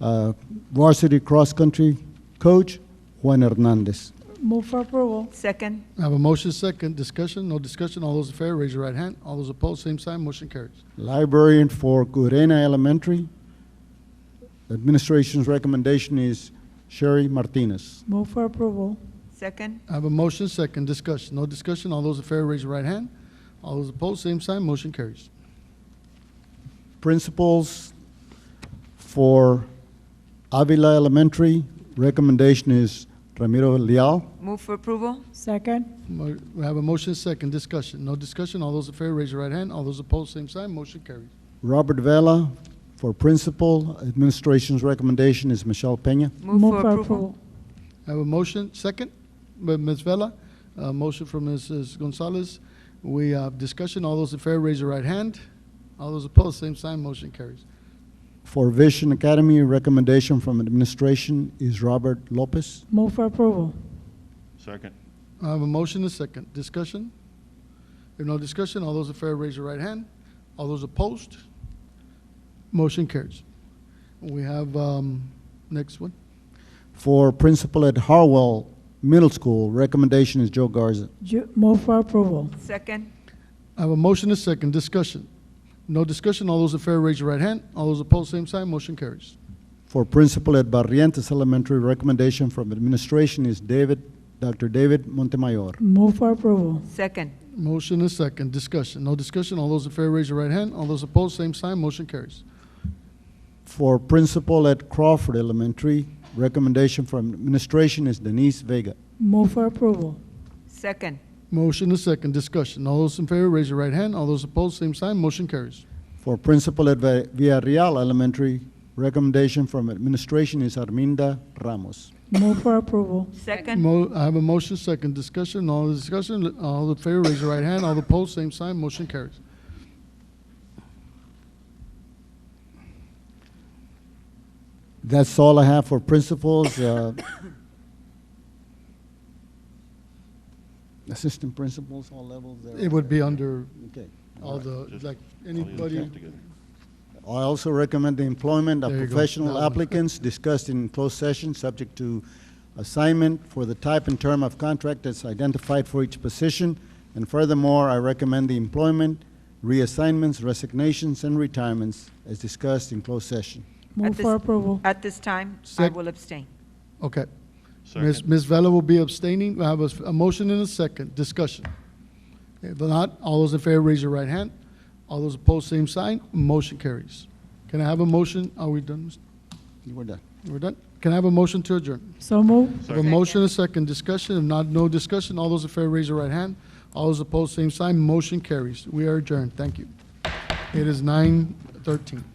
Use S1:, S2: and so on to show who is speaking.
S1: uh, varsity cross-country coach Juan Hernandez.
S2: Move for approval.
S3: Second.
S4: I have a motion second, discussion, no discussion, all those in favor, raise your right hand. All those opposed, same sign, motion carries.
S1: Librarian for Gurena Elementary. Administration's recommendation is Sherry Martinez.
S2: Move for approval.
S3: Second.
S4: I have a motion second, discussion, no discussion, all those in favor, raise your right hand. All those opposed, same sign, motion carries.
S1: Principals for Avila Elementary, recommendation is Ramiro Leal.
S3: Move for approval.
S2: Second.
S4: Mo- We have a motion second, discussion, no discussion, all those in favor, raise your right hand. All those opposed, same sign, motion carries.
S1: Robert Vela for Principal, administration's recommendation is Michelle Peña.
S3: Move for approval.
S4: I have a motion second, by Ms. Vela, a motion from Mrs. Gonzalez. We have discussion, all those in favor, raise your right hand. All those opposed, same sign, motion carries.
S1: For Vision Academy, recommendation from administration is Robert Lopez.
S2: Move for approval.
S5: Second.
S4: I have a motion and a second. Discussion? If no discussion, all those in favor, raise your right hand. All those opposed? Motion carries. We have, um, next one.
S1: For Principal at Harwell Middle School, recommendation is Joe Garza.
S2: Ju- Move for approval.
S3: Second.
S4: I have a motion and a second. Discussion? No discussion, all those in favor, raise your right hand. All those opposed, same sign, motion carries.
S1: For Principal at Barrientos Elementary, recommendation from administration is David, Dr. David Montemayor.
S2: Move for approval.
S3: Second.
S4: Motion and a second. Discussion? No discussion, all those in favor, raise your right hand. All those opposed, same sign, motion carries.
S1: For Principal at Crawford Elementary, recommendation from administration is Denise Vega.
S2: Move for approval.
S3: Second.
S4: Motion and a second. Discussion? All those in favor, raise your right hand. All those opposed, same sign, motion carries.
S1: For Principal at Va- Villarreal Elementary, recommendation from administration is Arminda Ramos.
S2: Move for approval.
S3: Second.
S4: Mo- I have a motion, second discussion, all the discussion, all the favor, raise your right hand, all the opposed, same sign, motion carries.
S1: That's all I have for principals. uh, Assistant principals, all levels. they're
S4: It would be under
S1: Okay.
S4: all the,
S5: Just
S4: like,
S5: all these
S4: anybody,
S5: lumped together.
S1: I also recommend the employment of
S4: There you go. That
S1: professional
S4: one.
S1: applicants discussed in closed session, subject to assignment for the type and term of contract that's identified for each position. And furthermore, I recommend the employment, reassignments, resignations, and retirements as discussed in closed session.
S2: Move
S3: this-
S2: for approval.
S3: At this time, I
S4: Sec-
S3: will abstain.
S4: okay. Ms.
S5: Second.
S4: Ms. Vella will be abstaining, I have a, s- a motion and a second discussion. If not, all those in favor, raise your right hand, all those opposed, same sign, motion carries. Can I have a motion, are we done? Mr.
S1: You were done.
S4: We're done? Can I have a motion to adjourn?
S2: So move.
S4: Have a
S5: Second.
S4: motion, and a second discussion, if not, no discussion, all those in favor, raise your right hand. All those opposed, same sign, motion carries. We are adjourned, thank you. It is nine thirteen.